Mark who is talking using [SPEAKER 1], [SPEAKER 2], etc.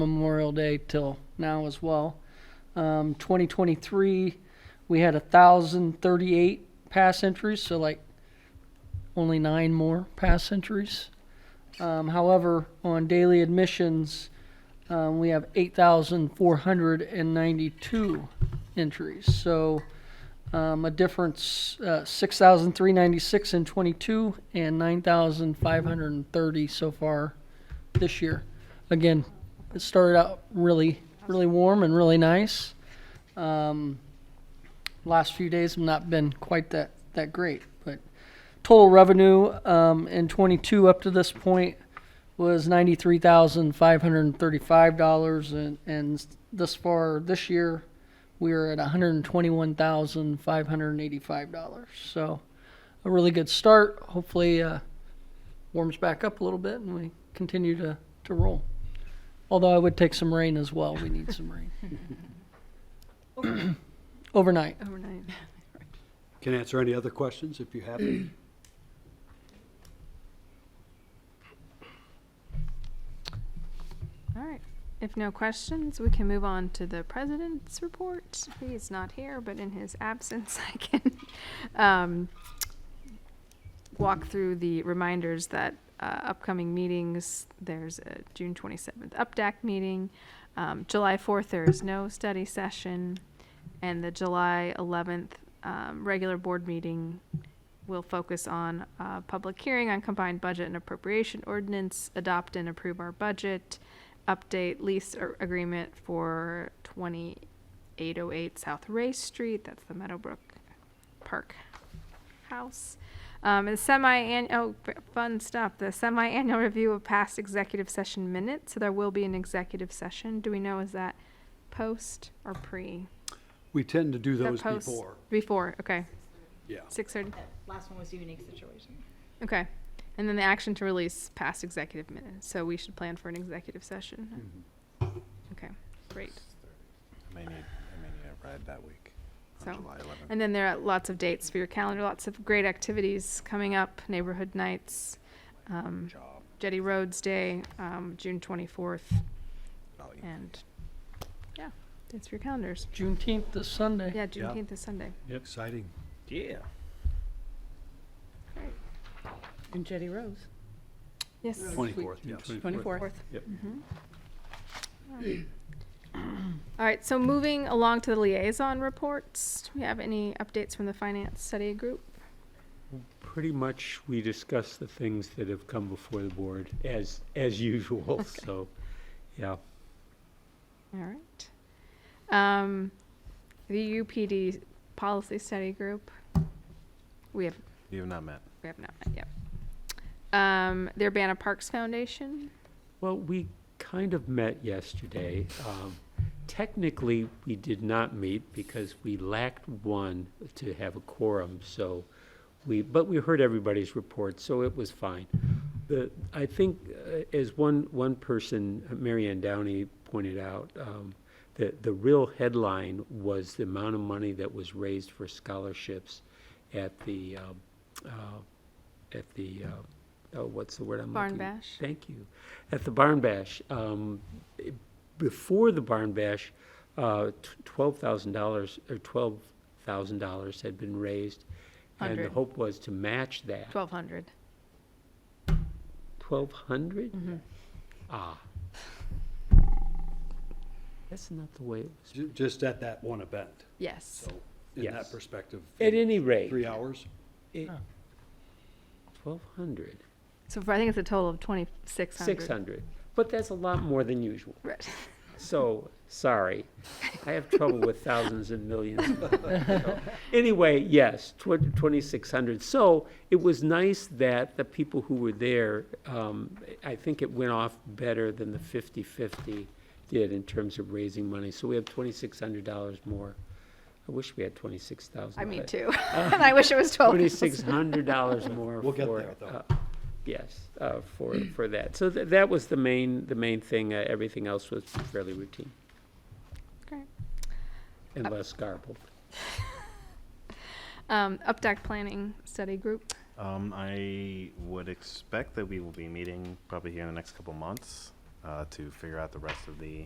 [SPEAKER 1] Memorial Day till now as well. Um, 2023, we had 1,038 pass entries, so like only nine more pass entries. Um, however, on daily admissions, um, we have 8,492 entries. So um, a difference uh, 6,396 in 22 and 9,530 so far this year. Again, it started out really, really warm and really nice. Um, last few days have not been quite that, that great, but total revenue um, in 22 up to this point was $93,535 and, and thus far this year we are at $121,585. So a really good start. Hopefully uh, warms back up a little bit and we continue to, to roll. Although I would take some rain as well. We need some rain. Overnight.
[SPEAKER 2] Overnight.
[SPEAKER 3] Can answer any other questions if you have any.
[SPEAKER 2] All right. If no questions, we can move on to the president's report. He is not here, but in his absence, I can um, walk through the reminders that uh, upcoming meetings, there's a June 27th UPDAC meeting. Um, July 4th, there is no study session. And the July 11th um, regular board meeting will focus on uh, public hearing on combined budget and appropriation ordinance, adopt and approve our budget, update lease ar- agreement for 2808 South Ray Street, that's the Meadowbrook Park House. Um, and semi-annual, oh, f- fun stuff, the semi-annual review of past executive session minutes, so there will be an executive session. Do we know, is that post or pre?
[SPEAKER 3] We tend to do
[SPEAKER 2] Is that
[SPEAKER 3] those
[SPEAKER 2] post?
[SPEAKER 3] before.
[SPEAKER 2] Before, okay,
[SPEAKER 3] Yeah.
[SPEAKER 2] 6:30.
[SPEAKER 4] That last one was a unique situation.
[SPEAKER 2] Okay. And then the action to release past executive minutes. So we should plan for an executive session. Okay, great.
[SPEAKER 5] I may need, I may need a ride that week,
[SPEAKER 2] So-
[SPEAKER 5] on July 11th.
[SPEAKER 2] And then there are lots of dates for your calendar, lots of great activities coming up, neighborhood nights, um,
[SPEAKER 5] Job,
[SPEAKER 2] Jetty Roads Day, um, June 24th,
[SPEAKER 5] value.
[SPEAKER 2] and yeah, that's for your calendars.
[SPEAKER 1] Juneteenth this Sunday.
[SPEAKER 2] Yeah, Juneteenth is Sunday.
[SPEAKER 5] Exciting.
[SPEAKER 6] Yeah.
[SPEAKER 7] And Jetty Rose,
[SPEAKER 2] Yes.
[SPEAKER 3] 24th, yes.
[SPEAKER 7] 24th.
[SPEAKER 6] Yep.
[SPEAKER 2] All right, so moving along to the liaison reports, do we have any updates from the finance study group?
[SPEAKER 6] Pretty much, we discuss the things that have come before the board as, as usual, so, yeah.
[SPEAKER 2] All right. Um, the UPD policy study group. We have
[SPEAKER 5] You have not met.
[SPEAKER 2] we have not met yet. Um, the Urbana Parks Foundation.
[SPEAKER 6] Well, we kind of met yesterday. Um, Technically, we did not meet because we lacked one to have a quorum, so we, but we heard everybody's report, so it was fine. The, I think, uh, as one, one person, uh, Mary Ann Downey pointed out, um, the, the real headline was the amount of money that was raised for scholarships at the, um, uh, at the, uh, oh, what's the word I'm
[SPEAKER 2] Barn
[SPEAKER 6] looking?
[SPEAKER 2] Bash?
[SPEAKER 6] Thank you. At the Barn Bash, um, eh, before the Barn Bash, uh, t- $12,000, or $12,000 had been raised. And
[SPEAKER 2] Hundred.
[SPEAKER 6] the hope was to match that.
[SPEAKER 2] Twelve hundred.
[SPEAKER 6] 1,200? Ah. That's not the way it was.
[SPEAKER 3] Ju- Just at that one event,
[SPEAKER 2] Yes.
[SPEAKER 3] so in that
[SPEAKER 6] Yes.
[SPEAKER 3] perspective.
[SPEAKER 6] At any rate,
[SPEAKER 3] Three hours?
[SPEAKER 6] it- 1,200,
[SPEAKER 2] So for, I think it's a total of twenty six hundred.
[SPEAKER 6] 600. But that's a lot more than usual.
[SPEAKER 2] Right.
[SPEAKER 6] So, sorry. I have trouble with thousands and millions. So, Anyway, yes, tw- 2,600. So it was nice that the people who were there, um, I think it went off better than the 50/50 did in terms of raising money. So we have $2,600 more. I wish we had 26,000.
[SPEAKER 2] I mean
[SPEAKER 6] but-
[SPEAKER 2] too. and I wish it was twelve.
[SPEAKER 6] $2,600 more
[SPEAKER 3] We'll get
[SPEAKER 6] for,
[SPEAKER 3] there, though.
[SPEAKER 6] uh, Yes, uh, for, for that. So tha- that was the main, the main thing. Uh, Everything else was fairly routine,
[SPEAKER 2] Great.
[SPEAKER 6] unless garbled.
[SPEAKER 2] Um, UPDAC Planning Study Group.
[SPEAKER 5] Um, I would expect that we will be meeting probably here in the next couple months. uh, to figure out the rest of the